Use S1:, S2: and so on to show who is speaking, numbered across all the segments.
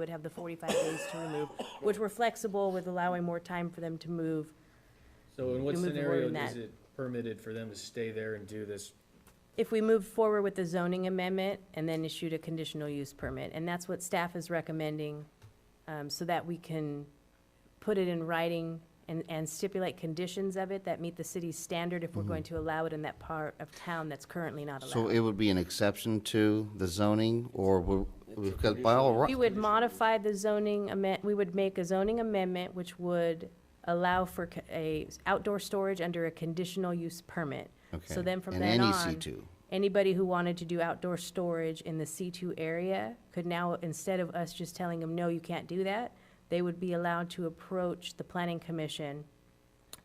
S1: would have the 45 days to remove, which we're flexible with allowing more time for them to move.
S2: So in what
S1: You move the word
S2: scenario
S1: in
S2: is
S1: that.
S2: it permitted for them to stay there and do this?
S1: If we move forward with the zoning amendment and then issued a conditional use permit, and that's what staff is recommending, um, so that we can put it in writing and, and stipulate conditions of it that meet the city's standard if we're going to allow it in that part of town that's currently not
S3: Mm-hmm. So
S1: allowed.
S3: it would be an exception to the zoning, or we, because by all
S1: We
S3: right,
S1: would modify the zoning amend, we would make a zoning amendment which would allow for co- a outdoor storage under a conditional use permit.
S3: okay.
S1: So then from
S3: in
S1: then
S3: any
S1: on,
S3: C2.
S1: anybody who wanted to do outdoor storage in the C2 area could now, instead of us just telling them, no, you can't do that, they would be allowed to approach the planning commission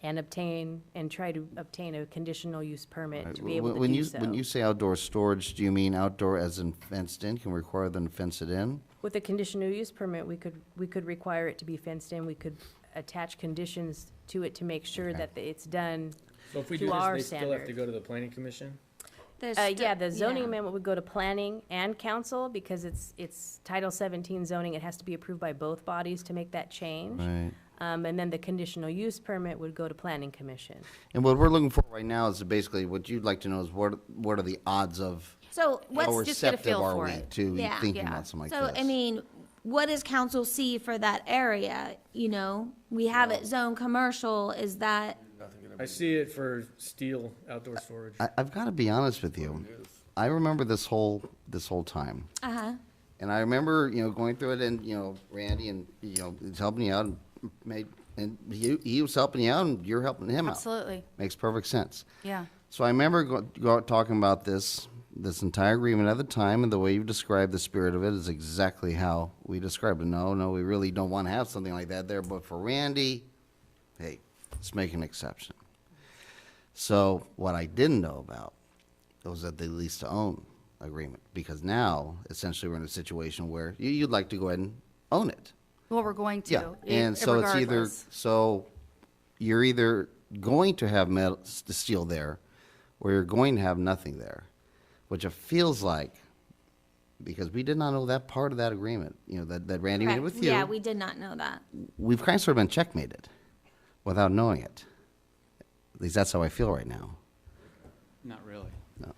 S1: and obtain, and try to obtain a conditional use permit to be able
S3: When
S1: to
S3: when
S1: do
S3: you,
S1: so.
S3: when you say outdoor storage, do you mean outdoor as in fenced in? Can we require them to fence it in?
S1: With a conditional use permit, we could, we could require it to be fenced in, we could attach conditions to it to make sure
S3: Okay.
S1: that it's done.
S2: So if we
S1: To
S2: do this,
S1: our
S2: they still have to
S1: standard.
S2: go to the planning commission?
S4: There's
S1: Uh,
S4: sti-
S1: yeah, the zoning
S4: yeah.
S1: amendment would go to planning and council because it's, it's Title seventeen zoning, it has to be approved by both bodies to make that change.
S3: Right.
S1: Um, and then the conditional use permit would go to planning commission.
S3: And what we're looking for right now is basically, what you'd like to know is what, what are the odds of,
S4: So
S3: how
S4: let's just get a
S3: receptive
S4: feel
S3: are
S4: for
S3: we
S4: it.
S3: to
S4: Yeah.
S3: thinking
S4: Yeah.
S3: about something like
S4: So,
S3: this?
S4: I mean, what does council see for that area? You know, we have it zoned commercial, is that,
S2: I see it for steel outdoor storage.
S3: I, I've got to be honest with you. I remember this whole, this whole time.
S4: uh-huh,
S3: And I remember, you know, going through it and, you know, Randy and, you know, he's helping you out and made, and he, he was helping you out and you're helping him out.
S5: Absolutely,
S3: Makes perfect sense.
S5: yeah.
S3: So I remember go, go, talking about this, this entire agreement at the time and the way you've described the spirit of it is exactly how we described it. No, no, we really don't want to have something like that there, but for Randy, hey, let's make an exception. So what I didn't know about was that the lease to own agreement, because now essentially we're in a situation where you, you'd like to go ahead and own it.
S5: Well, we're going to.
S3: Yeah,
S4: e,
S5: i-
S3: and so it's either,
S5: regardless.
S3: so you're either going to have metal, s- steel there, or you're going to have nothing there, which it feels like, because we did not know that part of that agreement, you know, that, that Randy made
S4: correct?
S3: with you.
S4: Yeah, we did not know that.
S3: We've kind of sort of been checkmated without knowing it. At least that's how I feel right now.
S6: Not really.
S3: No.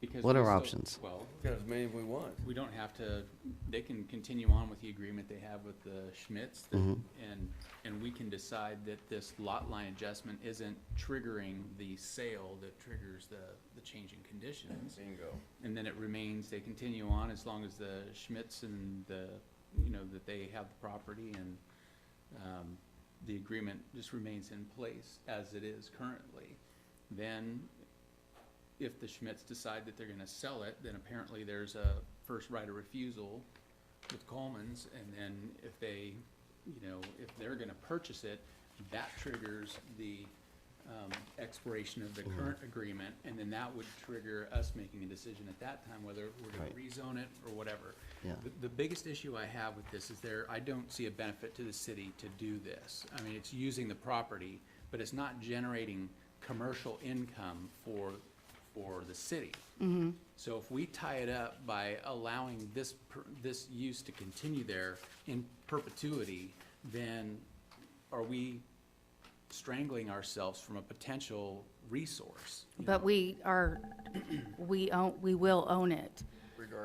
S6: Because
S3: What
S6: we
S3: are
S6: still-
S3: options?
S6: Well,
S7: Got as many as we want.
S6: we don't have to, they can continue on with the agreement they have with the Schmitz. that-
S3: Mm-hmm.
S6: And, and we can decide that this lot line adjustment isn't triggering the sale that triggers the, the change in conditions.
S7: Bingo.
S6: And then it remains, they continue on as long as the Schmitz and the, you know, that they have the property and, um, the agreement just remains in place as it is currently. Then, if the Schmitz decide that they're gonna sell it, then apparently there's a first right of refusal with Coleman's, and then if they, you know, if they're gonna purchase it, that triggers the, um, expiration of the
S3: Mm-hmm.
S6: current agreement, and then that would trigger us making a decision at that time whether we're gonna
S3: Right.
S6: rezone it or whatever.
S3: Yeah.
S6: The- The biggest issue I have with this is there, I don't see a benefit to the city to do this. I mean, it's using the property, but it's not generating commercial income for, for the city. So if we tie it up by allowing this, per- this use to continue there in perpetuity, then are we strangling ourselves from a potential resource?
S5: But we are, we own, we will own it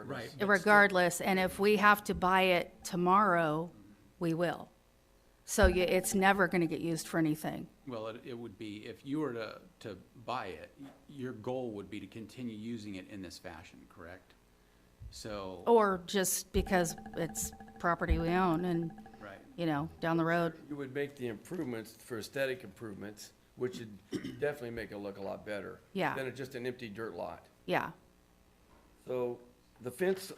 S6: Right.
S5: regardless, and if we have to buy it tomorrow, we will. So you- it's never going to get used for anything.
S6: Well, it, it would be, if you were to, to buy it, y- your goal would be to continue using it in this fashion, correct? So,
S5: Or just because it's property we own and,
S6: right,
S5: you know, down the road.
S7: You would make the improvements for aesthetic improvements, which would definitely make it look a lot better.
S5: Yeah.
S7: Than it's just an empty dirt lot.
S5: Yeah,
S7: So the fence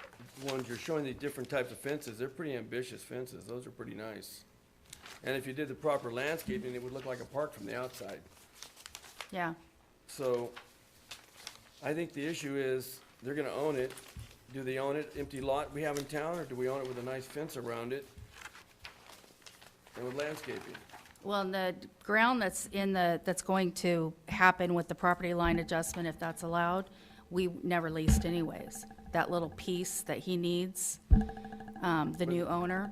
S7: ones, you're showing the different types of fences, they're pretty ambitious fences, those are pretty nice. And if you did the proper landscaping, it would look like a park from the outside.
S5: yeah.
S7: So I think the issue is, they're gonna own it. Do they own it, empty lot we have in town, or do we own it with a nice fence around it? And with landscaping?
S5: Well, and the ground that's in the, that's going to happen with the property line adjustment, if that's allowed, we never leased anyways. That little piece that he needs, um, the new owner.